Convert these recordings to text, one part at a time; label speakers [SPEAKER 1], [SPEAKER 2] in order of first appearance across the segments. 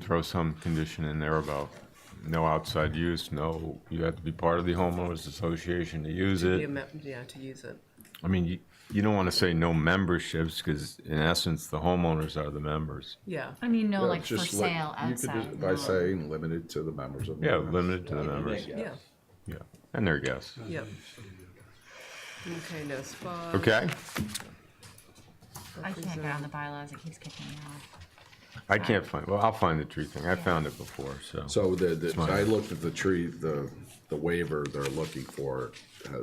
[SPEAKER 1] throw some condition in there about no outside use, no, you have to be part of the homeowners association to use
[SPEAKER 2] The
[SPEAKER 1] it.
[SPEAKER 2] amount- Yeah, to use it.
[SPEAKER 1] I mean, you, you don't want to say no memberships, because in essence, the homeowners are the members.
[SPEAKER 2] Yeah,
[SPEAKER 3] I mean, no,
[SPEAKER 4] Yeah,
[SPEAKER 3] like for
[SPEAKER 4] just li-
[SPEAKER 3] sale
[SPEAKER 4] you could just-
[SPEAKER 3] outside.
[SPEAKER 4] By saying limited to the members of. the
[SPEAKER 1] Yeah,
[SPEAKER 4] members.
[SPEAKER 1] limited to the members,
[SPEAKER 2] yeah,
[SPEAKER 1] yeah, and their guests.
[SPEAKER 2] yeah. Okay, no spa.
[SPEAKER 1] Okay,
[SPEAKER 3] I can't get on the bylaws, it keeps kicking me off.
[SPEAKER 1] I can't find, well, I'll find the tree thing, I found it before, so.
[SPEAKER 4] So the, the,
[SPEAKER 1] mine.
[SPEAKER 4] I looked at the tree, the, the waiver they're looking for, uh,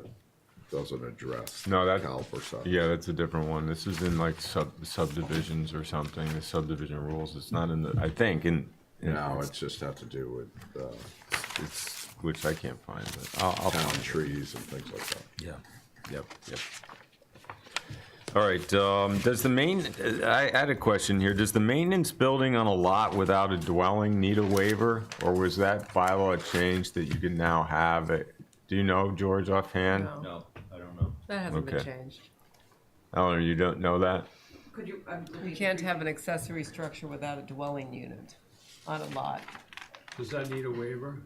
[SPEAKER 4] doesn't address.
[SPEAKER 1] No, that-
[SPEAKER 4] Caliper stuff.
[SPEAKER 1] Yeah, that's a different one. This is in like sub subdivisions or something, the subdivision rules. It's not in the, I think, in, in-
[SPEAKER 4] No, it's just have to do with, uh,
[SPEAKER 1] it's, which I can't find, but I'll, I'll
[SPEAKER 4] town
[SPEAKER 1] find it.
[SPEAKER 4] trees and things like that.
[SPEAKER 1] Yeah, yep, yep. All right, um, does the main, I had a question here. Does the maintenance building on a lot without a dwelling need a waiver? Or was that bylaw change that you can now have it? Do you know, George, offhand?
[SPEAKER 2] No,
[SPEAKER 5] No, I don't know.
[SPEAKER 2] that hasn't been
[SPEAKER 1] Okay.
[SPEAKER 2] changed.
[SPEAKER 1] Eleanor, you don't know that?
[SPEAKER 6] Could you, um,
[SPEAKER 2] You can't have an accessory structure without a dwelling unit on a lot.
[SPEAKER 7] Does that need a waiver?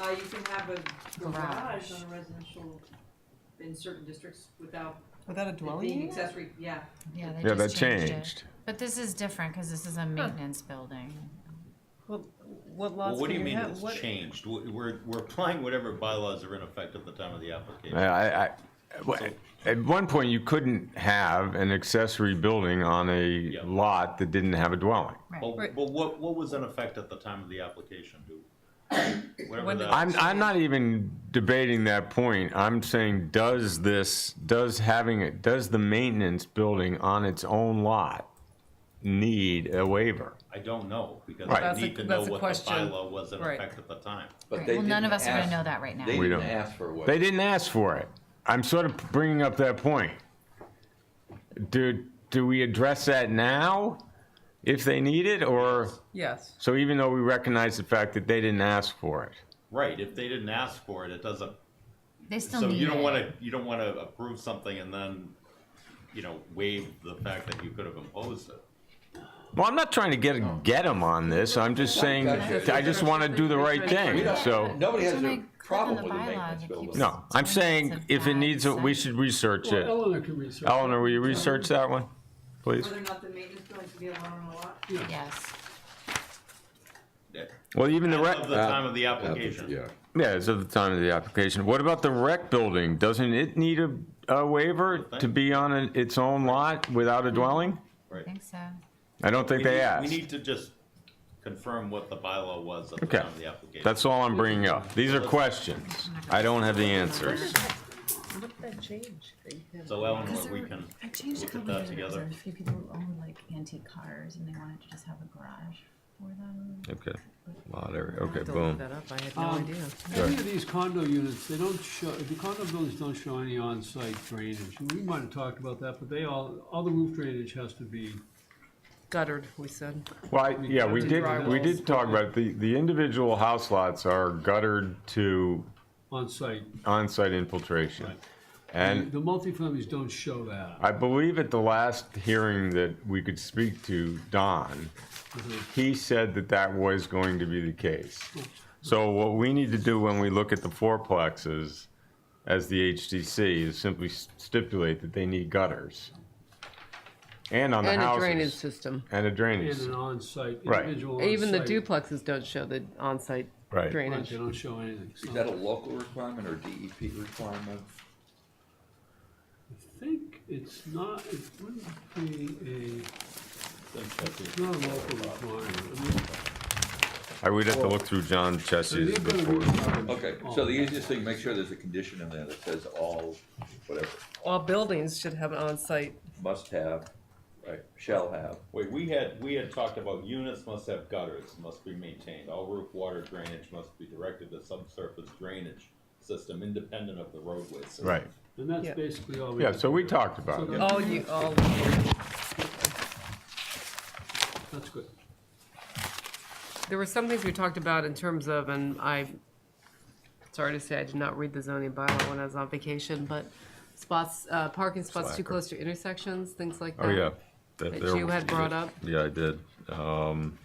[SPEAKER 6] uh, you can have a garage
[SPEAKER 3] Garage.
[SPEAKER 6] on a residential, in certain districts without
[SPEAKER 2] Without a
[SPEAKER 6] it
[SPEAKER 2] dwelling
[SPEAKER 6] being
[SPEAKER 2] unit?
[SPEAKER 6] accessory, yeah.
[SPEAKER 3] Yeah, they
[SPEAKER 1] Yeah, that
[SPEAKER 3] just changed it.
[SPEAKER 1] changed.
[SPEAKER 3] But this is different, cause this is a maintenance building.
[SPEAKER 2] What, what
[SPEAKER 5] Well,
[SPEAKER 2] lots
[SPEAKER 5] what do
[SPEAKER 2] can
[SPEAKER 5] you
[SPEAKER 2] you
[SPEAKER 5] mean
[SPEAKER 2] have?
[SPEAKER 5] it's
[SPEAKER 2] What-
[SPEAKER 5] changed? W- We're, we're applying whatever bylaws are in effect at the time of the application.
[SPEAKER 1] I, I, w- at one point, you couldn't have an accessory building on a lot that didn't have a dwelling.
[SPEAKER 5] But,
[SPEAKER 2] Right.
[SPEAKER 5] but what, what was in effect at the time of the application, do? Whatever
[SPEAKER 2] When did-
[SPEAKER 5] that,
[SPEAKER 1] I'm, I'm not even debating that point. I'm saying, does this, does having it, does the maintenance building on its own lot need a waiver?
[SPEAKER 5] I don't know, because
[SPEAKER 1] Right.
[SPEAKER 5] I
[SPEAKER 2] That's a-
[SPEAKER 5] need to know
[SPEAKER 2] that's a
[SPEAKER 5] what the
[SPEAKER 2] question.
[SPEAKER 5] bylaw was in
[SPEAKER 2] Right.
[SPEAKER 5] effect at the time.
[SPEAKER 3] Right, well, none of us are gonna know that right now.
[SPEAKER 8] They
[SPEAKER 1] We
[SPEAKER 8] didn't
[SPEAKER 1] don't.
[SPEAKER 8] ask for a waiver.
[SPEAKER 1] They didn't ask for it. I'm sort of bringing up that point. Do, do we address that now if they need it or?
[SPEAKER 2] Yes,
[SPEAKER 1] So even though we recognize the fact that they didn't ask for it,
[SPEAKER 5] Right, if they didn't ask for it, it doesn't,
[SPEAKER 3] They still
[SPEAKER 5] so
[SPEAKER 3] need it.
[SPEAKER 5] you don't wanna, you don't wanna approve something and then, you know, waive the fact that you could have imposed it.
[SPEAKER 1] well, I'm not trying to get, get them on this, I'm just saying, I just want to do the right
[SPEAKER 8] We
[SPEAKER 1] thing,
[SPEAKER 8] don't-
[SPEAKER 1] so.
[SPEAKER 8] Nobody
[SPEAKER 3] So
[SPEAKER 8] has
[SPEAKER 3] when
[SPEAKER 8] a
[SPEAKER 3] I click on
[SPEAKER 8] problem
[SPEAKER 3] the
[SPEAKER 8] with the
[SPEAKER 3] bylaw,
[SPEAKER 8] maintenance
[SPEAKER 3] it
[SPEAKER 8] building.
[SPEAKER 3] keeps-
[SPEAKER 1] No, I'm saying if it needs, it, we should research
[SPEAKER 7] Well,
[SPEAKER 1] it.
[SPEAKER 7] Eleanor can research.
[SPEAKER 1] Eleanor, will you research that one, please?
[SPEAKER 6] Whether or not the maintenance building can be allowed on a lot.
[SPEAKER 3] Yes,
[SPEAKER 5] At
[SPEAKER 1] Well, even the rec,
[SPEAKER 5] of the time of the application.
[SPEAKER 4] Yeah,
[SPEAKER 1] yeah, it's at the time of the application. What about the rec building? Doesn't it need a, a waiver to be on a- its own lot without a dwelling?
[SPEAKER 3] I think so.
[SPEAKER 1] I don't think
[SPEAKER 5] We
[SPEAKER 1] they
[SPEAKER 5] need-
[SPEAKER 1] asked.
[SPEAKER 5] We need to just confirm what the bylaw was at the
[SPEAKER 1] Okay.
[SPEAKER 5] time of the application.
[SPEAKER 1] That's all I'm bringing up. These are questions. I don't have the answers.
[SPEAKER 2] what did that change? that you had?
[SPEAKER 5] So Eleanor, we can
[SPEAKER 3] I changed
[SPEAKER 5] a look at couple that years ago. together. There's
[SPEAKER 3] a few people who owned like antique cars and they wanted to just have a garage for them.
[SPEAKER 1] Okay, lot area,
[SPEAKER 2] I
[SPEAKER 1] okay,
[SPEAKER 2] have to look
[SPEAKER 1] boom.
[SPEAKER 2] that up, I had no
[SPEAKER 7] Um,
[SPEAKER 2] idea.
[SPEAKER 7] Any of these condo units, they don't show, the condo buildings don't show any on-site drainage. And We might have talked about that, but they all, all the roof drainage has to be,
[SPEAKER 2] Guttered, we said.
[SPEAKER 1] Well, I- yeah, we
[SPEAKER 7] covered
[SPEAKER 1] did,
[SPEAKER 2] dry
[SPEAKER 1] we
[SPEAKER 2] walls.
[SPEAKER 1] did talk about, the, the individual house lots are guttered to
[SPEAKER 7] on-site.
[SPEAKER 1] on-site infiltration. And
[SPEAKER 7] The multifamilies don't show that.
[SPEAKER 1] I believe at the last hearing that we could speak to, Don, he said that that was going to be the case. So what we need to do when we look at the fourplexes as the HDC is simply stipulate that they need gutters. And on the
[SPEAKER 2] And a
[SPEAKER 1] houses.
[SPEAKER 2] drainage system.
[SPEAKER 1] And a drainage,
[SPEAKER 7] In an on-site,
[SPEAKER 1] Right.
[SPEAKER 7] individual on-site.
[SPEAKER 2] Even the duplexes don't show the on-site
[SPEAKER 1] Right.
[SPEAKER 7] Right,
[SPEAKER 2] drainage.
[SPEAKER 7] they don't show anything. So
[SPEAKER 8] Is that a local requirement or DEP requirement?
[SPEAKER 7] I think it's not, it wouldn't be a, it's not a local requirement. I mean,
[SPEAKER 1] I would have to look through John
[SPEAKER 7] so
[SPEAKER 1] Chessie's
[SPEAKER 7] they've got a
[SPEAKER 1] before.
[SPEAKER 7] requirement
[SPEAKER 8] Okay,
[SPEAKER 7] on
[SPEAKER 8] so the
[SPEAKER 7] that.
[SPEAKER 8] easiest thing, make sure there's a condition in there that says all, whatever,
[SPEAKER 2] All buildings should have an on-site.
[SPEAKER 8] must have, right, shall have.
[SPEAKER 5] Wait, we had, we had talked about units must have gutters, must be maintained, all roof water drainage must be directed to subsurface drainage system independent of the roadway system.
[SPEAKER 1] Right,
[SPEAKER 7] And that's
[SPEAKER 2] Yeah.
[SPEAKER 7] basically all we.
[SPEAKER 1] yeah,
[SPEAKER 7] have
[SPEAKER 1] so
[SPEAKER 7] to
[SPEAKER 1] we
[SPEAKER 7] do.
[SPEAKER 1] talked about it.
[SPEAKER 2] all you, all,
[SPEAKER 7] That's good.
[SPEAKER 2] there were some things we talked about in terms of, and I, sorry to say, I did not read the zoning bylaw when I was on vacation, but spots, uh, parking spots too
[SPEAKER 1] Slacker.
[SPEAKER 2] close to intersections, things like that.
[SPEAKER 1] Oh, yeah.
[SPEAKER 2] That you had brought up?
[SPEAKER 1] Yeah, I did. Um,